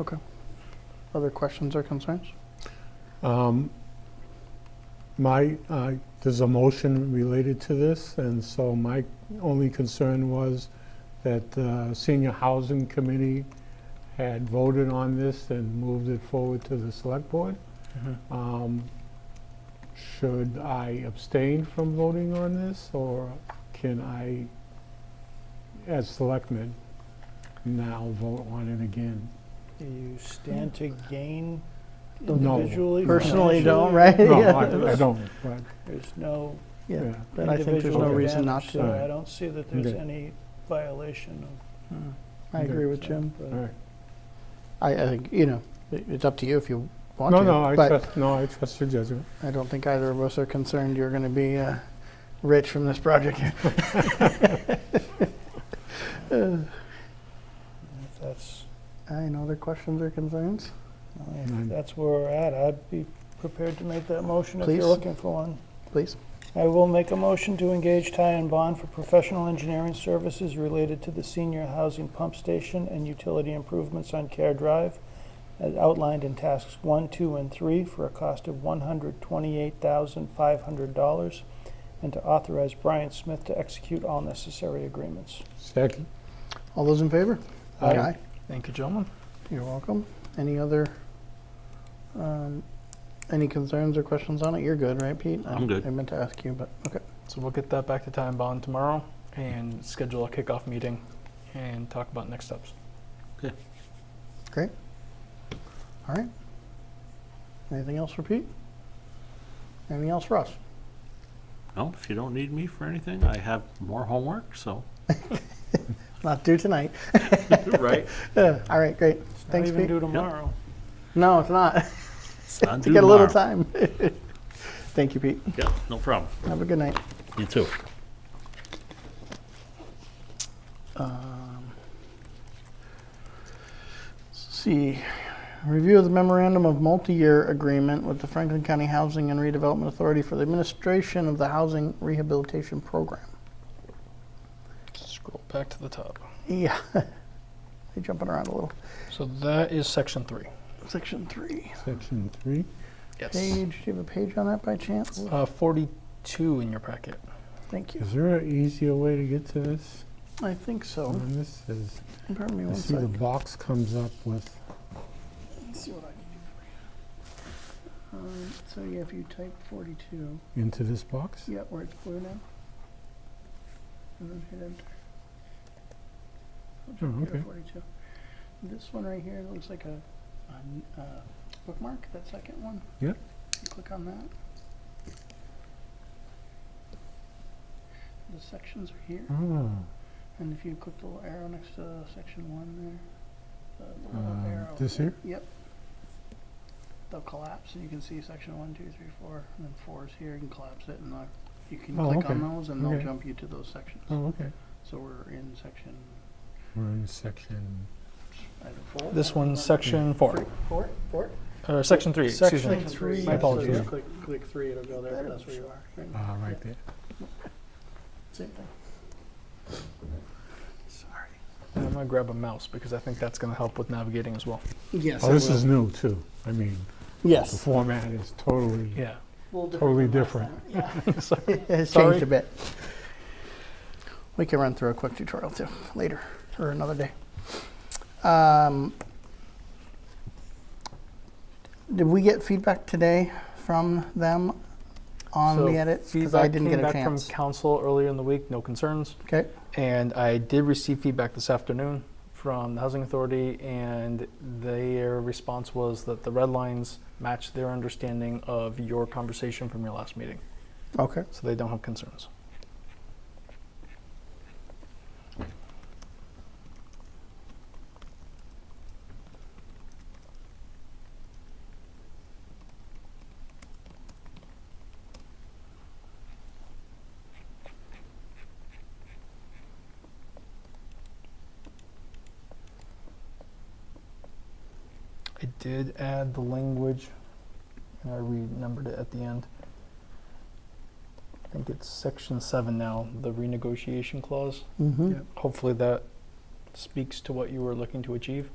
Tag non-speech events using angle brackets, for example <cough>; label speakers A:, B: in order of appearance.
A: Okay. Other questions or concerns?
B: Um, My, uh, there's a motion related to this, and so my only concern was that the Senior Housing Committee had voted on this and moved it forward to the Select Board. Um, Should I abstain from voting on this, or can I, as Selectman, now vote on it again?
C: Do you stand to gain
B: No.
C: individually?
A: Personally, don't,
C: financially?
A: right?
B: No,
A: <laughs> Yeah.
B: I I don't, but,
C: There's no
A: Yeah.
B: yeah.
A: And I think there's
C: individual
A: no
B: Okay.
A: reason not
C: advantage,
A: to.
B: Alright.
C: So I don't see that there's
B: Okay.
C: any violation of.
A: Mm. I agree with Jim.
C: but-
B: all right.
A: I, I think, you know, it- it's up to you if you want
B: No,
A: to.
B: no, I
A: But
B: trust, no, I trust your judgment.
A: I don't think either of us are concerned you're going to be uh, rich from this
B: <laughs>
A: project.
C: If that's,
A: Any other questions or concerns?
C: if
B: Mm.
C: that's where we're at, I'd be prepared to make that motion if
A: Please.
C: you're looking for one.
A: Please.
C: I will make a motion to engage Ty and Bond for professional engineering services related to the senior housing pump station and utility improvements on Care Drive as outlined in tasks one, two, and three for a cost of one hundred twenty-eight thousand five hundred dollars and to authorize Brian Smith to execute all necessary agreements.
B: Second.
A: All those in favor?
B: Aye.
A: Thank you, gentlemen. You're welcome. Any other, um, any concerns or questions on it? You're good, right, Pete? I-
D: I'm good.
A: I meant to ask you, but, okay.
E: So we'll get that back to Time Bond tomorrow and schedule a kickoff meeting and talk about next steps.
A: Anything else for Pete? Anything else for us?
D: No, if you don't need me for anything, I have more homework, so.
A: Not due tonight.
D: <laughs>
A: <laughs>
D: <laughs> Right.
A: Uh, All right, great.
C: It's not
A: Thanks,
C: even
A: Pete.
C: due tomorrow.
A: No, it's not. <laughs>
D: It's not
A: to
D: due
A: get a little
D: tomorrow.
A: time. <laughs> Thank you, Pete.
D: Yeah, no problem.
A: Have a good night.
D: You too.
A: Um, let's see, review of the memorandum of multi-year agreement with the Franklin County Housing and Redevelopment Authority for the administration of the housing rehabilitation program.
E: Scroll back to the top.
A: Yeah, they jumping around a little.
E: So that is section three.
A: Section three.
B: Section three.
A: Page. Do you have a page on that by chance?
E: Uh, 42 in your packet.
A: Thank you.
B: Is there an easier way to get to this?
A: I think so.
B: Um, This is,
A: Pardon me
B: I
A: one
B: see the
A: second.
B: box comes up with,
A: Let's see what I can do for you. Um, so yeah, if you type forty-two.
B: into this box?
A: Yeah, where it's blue now. And then hit enter.
B: Oh,
A: Here,
B: okay.
A: 42. This one right here looks like a, a n- uh, bookmark, that second one.
B: Yeah.
A: You click on that. The sections are here,
B: Ah,
A: and if you click the little arrow next to section one there, the little
B: um,
A: arrow.
B: this here?
A: Yep. They'll collapse, and you can see section one, two, three, four, and then four is here. You can collapse it, and uh, you can
B: Oh,
A: click
B: okay.
A: on those, and they'll
B: Okay.
A: jump you to those sections.
B: Oh, okay.
A: So we're in section
B: We're in section,
A: either four.
E: This
A: or
E: one's
A: one.
E: section four,
A: Four? Four?
E: or section three, excuse
C: Section
E: me.
C: three.
E: My apologies.
A: So just click, click three, it'll go there, that's where you are. Right.
B: ah, right there.
A: Same thing. Sorry.
B: Oh,
E: And I'm going to grab a mouse because I think that's going to help with navigating as well.
A: Yes.
B: Oh, this is new too. I mean, the
A: Yes.
B: format is totally,
E: Yeah.
B: totally different.
A: <laughs> It's
E: <laughs> Sorry.
A: changed a bit. We can run through a quick tutorial too, later, or another day. Um, Did we get feedback today from them on
E: So
A: the edits? Because I
E: feedback
A: didn't
E: came
A: get a
E: back
A: chance.
E: From council earlier in the week, no concerns.
A: Okay,
E: And I did receive feedback this afternoon from the Housing Authority, and their response was that the red lines match their understanding of your conversation from your last meeting,
A: okay.
E: so they don't have concerns. I did add the language, and I renumbered it at the end. I think it's section seven now, the renegotiation clause.
A: Mm-hmm.
B: Yep.
E: Hopefully that speaks to what you were looking to achieve.